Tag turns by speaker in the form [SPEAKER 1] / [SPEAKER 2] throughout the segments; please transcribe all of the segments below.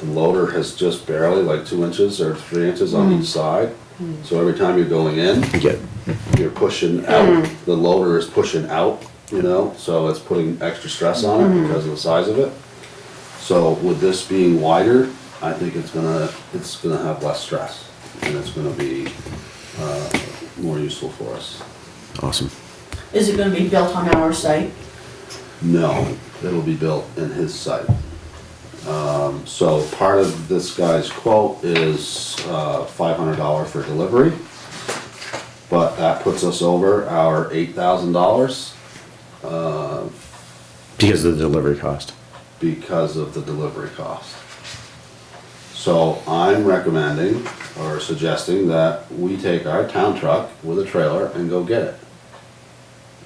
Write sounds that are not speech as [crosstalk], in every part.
[SPEAKER 1] The loader has just barely, like two inches or three inches on each side. So every time you're going in,
[SPEAKER 2] Get,
[SPEAKER 1] you're pushing out, the loader is pushing out, you know, so it's putting extra stress on it because of the size of it. So with this being wider, I think it's gonna, it's gonna have less stress and it's gonna be, uh, more useful for us.
[SPEAKER 2] awesome.
[SPEAKER 3] Is it gonna be built on our site?
[SPEAKER 1] No, it'll be built in his site. Um, so part of this guy's quote is, uh, five hundred dollar for delivery. But that puts us over our eight thousand dollars
[SPEAKER 2] Because of the delivery cost.
[SPEAKER 1] because of the delivery cost. So I'm recommending or suggesting that we take our town truck with a trailer and go get it.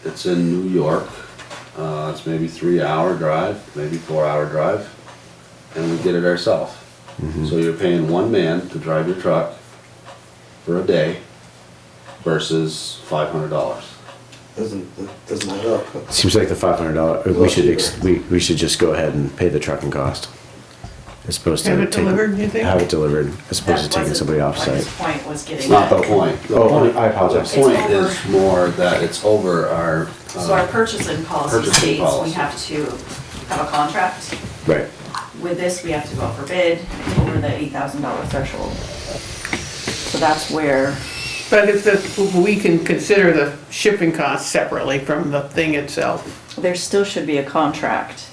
[SPEAKER 1] It's in New York, uh, it's maybe three hour drive, maybe four hour drive, and we get it ourselves. So you're paying one man to drive your truck for a day versus five hundred dollars.
[SPEAKER 4] Doesn't, that doesn't add up.
[SPEAKER 2] Seems like the five hundred dollar, we should, ex- we, we should just go ahead and pay the trucking cost. As opposed to.
[SPEAKER 5] Have it
[SPEAKER 2] taking-
[SPEAKER 5] delivered, you think?
[SPEAKER 2] Have it delivered, as opposed to
[SPEAKER 6] That
[SPEAKER 2] taking
[SPEAKER 6] wasn't
[SPEAKER 2] somebody off
[SPEAKER 6] what
[SPEAKER 2] site.
[SPEAKER 6] His point was
[SPEAKER 1] It's
[SPEAKER 6] getting
[SPEAKER 1] not the
[SPEAKER 6] at.
[SPEAKER 1] point. The
[SPEAKER 2] Oh,
[SPEAKER 1] point-
[SPEAKER 2] I apologize.
[SPEAKER 1] The point
[SPEAKER 6] It's over.
[SPEAKER 1] is more that it's over our. uh,
[SPEAKER 6] So
[SPEAKER 2] uh,
[SPEAKER 6] our purchasing policy
[SPEAKER 1] Purchasing
[SPEAKER 6] states
[SPEAKER 1] policy.
[SPEAKER 6] we have to have a contract.
[SPEAKER 2] Right.
[SPEAKER 6] With this, we have to go out for bid over the eight thousand dollar threshold. So that's where,
[SPEAKER 5] But if the, we can consider the shipping costs separately from the thing itself.
[SPEAKER 6] there still should be a contract.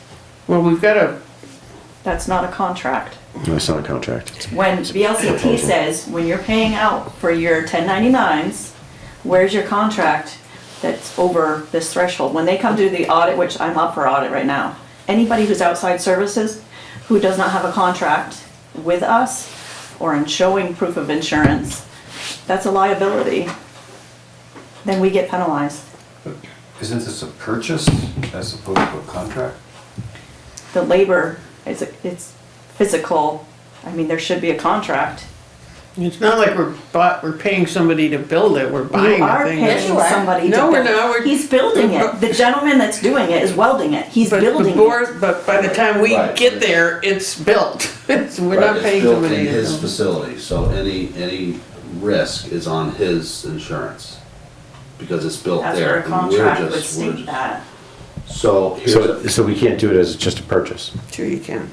[SPEAKER 5] Well, we've got a,
[SPEAKER 6] That's not a contract.
[SPEAKER 2] No, it's not a contract. It's-
[SPEAKER 6] When VLCT says, when you're paying out for your ten ninety-nines, where's your contract that's over this threshold? When they come to the audit, which I'm up for audit right now, anybody who's outside services, who does not have a contract with us or in showing proof of insurance, that's a liability. Then we get penalized.
[SPEAKER 7] Isn't this a purchase as opposed to a contract?
[SPEAKER 6] The labor, it's, it's physical. I mean, there should be a contract.
[SPEAKER 5] it's not like we're bought, we're paying somebody to build it, we're buying
[SPEAKER 6] You
[SPEAKER 5] the
[SPEAKER 6] are
[SPEAKER 5] thing.
[SPEAKER 6] paying
[SPEAKER 5] But
[SPEAKER 6] somebody to
[SPEAKER 5] No,
[SPEAKER 6] build
[SPEAKER 5] we're
[SPEAKER 6] it.
[SPEAKER 5] not. We're-
[SPEAKER 6] He's building it. The gentleman that's doing it is welding it. He's
[SPEAKER 5] the
[SPEAKER 6] building it.
[SPEAKER 5] board- But by the time we
[SPEAKER 1] Right.
[SPEAKER 5] get there, it's built. [laughs] So We're
[SPEAKER 1] Right,
[SPEAKER 5] not paying
[SPEAKER 1] It's built
[SPEAKER 5] somebody
[SPEAKER 1] in his
[SPEAKER 5] to.
[SPEAKER 1] facility, so any, any risk is on his insurance, because it's built
[SPEAKER 6] That's
[SPEAKER 1] there.
[SPEAKER 6] where a
[SPEAKER 1] and we're
[SPEAKER 6] contract would
[SPEAKER 1] just- we're
[SPEAKER 6] state
[SPEAKER 1] just-
[SPEAKER 6] that.
[SPEAKER 1] So here's,
[SPEAKER 2] So,
[SPEAKER 1] a-
[SPEAKER 2] so we can't do it as just a purchase.
[SPEAKER 5] Sure you can.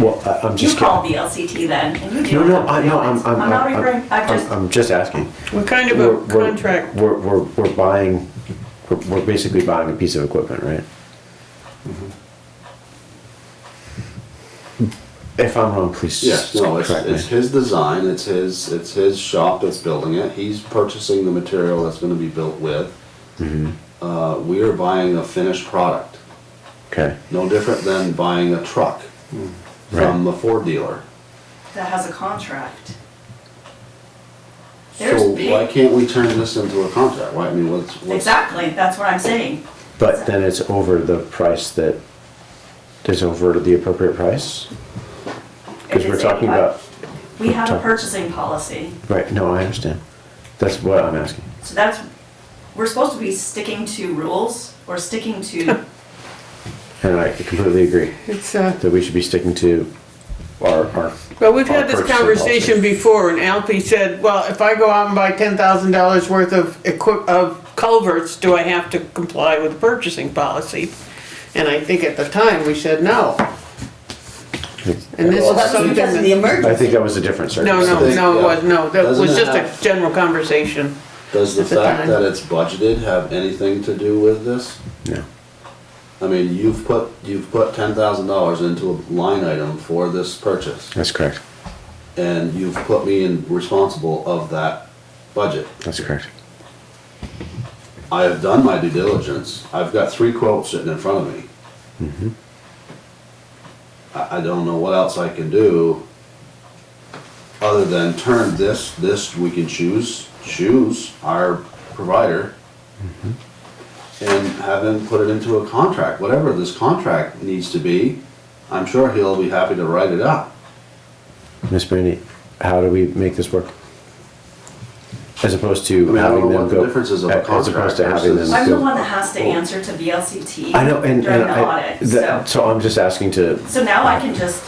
[SPEAKER 2] Well, I- I'm
[SPEAKER 6] You
[SPEAKER 2] just
[SPEAKER 6] call
[SPEAKER 2] kidding.
[SPEAKER 6] VLCT then, and you
[SPEAKER 2] No,
[SPEAKER 6] deal with
[SPEAKER 2] no, I, no, I'm,
[SPEAKER 6] complaints.
[SPEAKER 2] I'm,
[SPEAKER 6] I'm not referring,
[SPEAKER 2] I'm,
[SPEAKER 6] I'm
[SPEAKER 2] I'm,
[SPEAKER 6] just,
[SPEAKER 2] I'm just asking.
[SPEAKER 5] What kind of
[SPEAKER 2] We're-
[SPEAKER 5] a
[SPEAKER 2] we're-
[SPEAKER 5] contract,
[SPEAKER 2] We're, we're, we're buying, we're, we're basically buying a piece of equipment, right?
[SPEAKER 1] Mm-hmm.
[SPEAKER 2] If I'm wrong, please
[SPEAKER 1] yes, no, it's,
[SPEAKER 2] correct me.
[SPEAKER 1] it's his design, it's his, it's his shop that's building it, he's purchasing the material that's gonna be built with.
[SPEAKER 2] Mm-hmm.
[SPEAKER 1] Uh, we are buying a finished product,
[SPEAKER 2] Okay,
[SPEAKER 1] no different than buying a truck from the Ford dealer.
[SPEAKER 6] that has a contract. There's
[SPEAKER 1] So
[SPEAKER 6] big-
[SPEAKER 1] why can't we turn this into a contract, why, I mean, what's, what's?
[SPEAKER 6] Exactly, that's what I'm saying.
[SPEAKER 2] but then it's over the price that, is over the appropriate price? Because
[SPEAKER 6] If
[SPEAKER 2] we're
[SPEAKER 6] it's
[SPEAKER 2] talking
[SPEAKER 6] 85
[SPEAKER 2] about,
[SPEAKER 6] We have a
[SPEAKER 2] talking-
[SPEAKER 6] purchasing policy,
[SPEAKER 2] right, no, I understand. That's what I'm asking.
[SPEAKER 6] so that's, we're supposed to be sticking to rules. We're sticking
[SPEAKER 5] [laughs]
[SPEAKER 6] to,
[SPEAKER 2] And I completely agree
[SPEAKER 5] it's, uh,
[SPEAKER 2] that we should be sticking to our, our.
[SPEAKER 5] Well, we've
[SPEAKER 2] our
[SPEAKER 5] had this
[SPEAKER 2] purchasing
[SPEAKER 5] conversation
[SPEAKER 2] policy.
[SPEAKER 5] before, and Alfie said, well, if I go out and buy ten thousand dollars worth of equip, of culverts, do I have to comply with the purchasing policy? And I think at the time, we said no, and this
[SPEAKER 1] Well,
[SPEAKER 5] is
[SPEAKER 1] that's
[SPEAKER 5] something
[SPEAKER 3] Because of the
[SPEAKER 5] that.
[SPEAKER 2] I
[SPEAKER 3] emergency.
[SPEAKER 2] think that was a different
[SPEAKER 5] No,
[SPEAKER 2] circumstance.
[SPEAKER 5] no, no, it was, no, that
[SPEAKER 1] Doesn't
[SPEAKER 5] was
[SPEAKER 1] it
[SPEAKER 5] just
[SPEAKER 1] have-
[SPEAKER 5] a general conversation.
[SPEAKER 1] Does the
[SPEAKER 5] at the
[SPEAKER 1] fact
[SPEAKER 5] time.
[SPEAKER 1] that it's budgeted have anything to do with this?
[SPEAKER 2] No.
[SPEAKER 1] I mean, you've put, you've put ten thousand dollars into a line item for this purchase,
[SPEAKER 2] That's correct.
[SPEAKER 1] and you've put me in responsible of that budget.
[SPEAKER 2] That's correct.
[SPEAKER 1] I have done my due diligence, I've got three quotes sitting in front of me. I, I don't know what else I can do, other than turn this, this, we can choose, choose our provider, and have him put it into a contract, whatever this contract needs to be, I'm sure he'll be happy to write it up.
[SPEAKER 2] Miss Brandy, how do we make this work? As opposed
[SPEAKER 1] I
[SPEAKER 2] to
[SPEAKER 1] mean, I don't
[SPEAKER 2] having
[SPEAKER 1] know
[SPEAKER 2] them
[SPEAKER 1] what the
[SPEAKER 2] go.
[SPEAKER 1] difference is of a
[SPEAKER 2] As opposed to
[SPEAKER 1] contract
[SPEAKER 2] having them
[SPEAKER 1] versus-
[SPEAKER 6] I'm the
[SPEAKER 2] go.
[SPEAKER 6] one that has to answer to VLCT
[SPEAKER 2] I know, and,
[SPEAKER 6] during
[SPEAKER 2] and
[SPEAKER 6] the
[SPEAKER 2] I,
[SPEAKER 6] audit, so.
[SPEAKER 2] that- so I'm just asking to,
[SPEAKER 6] So now I can just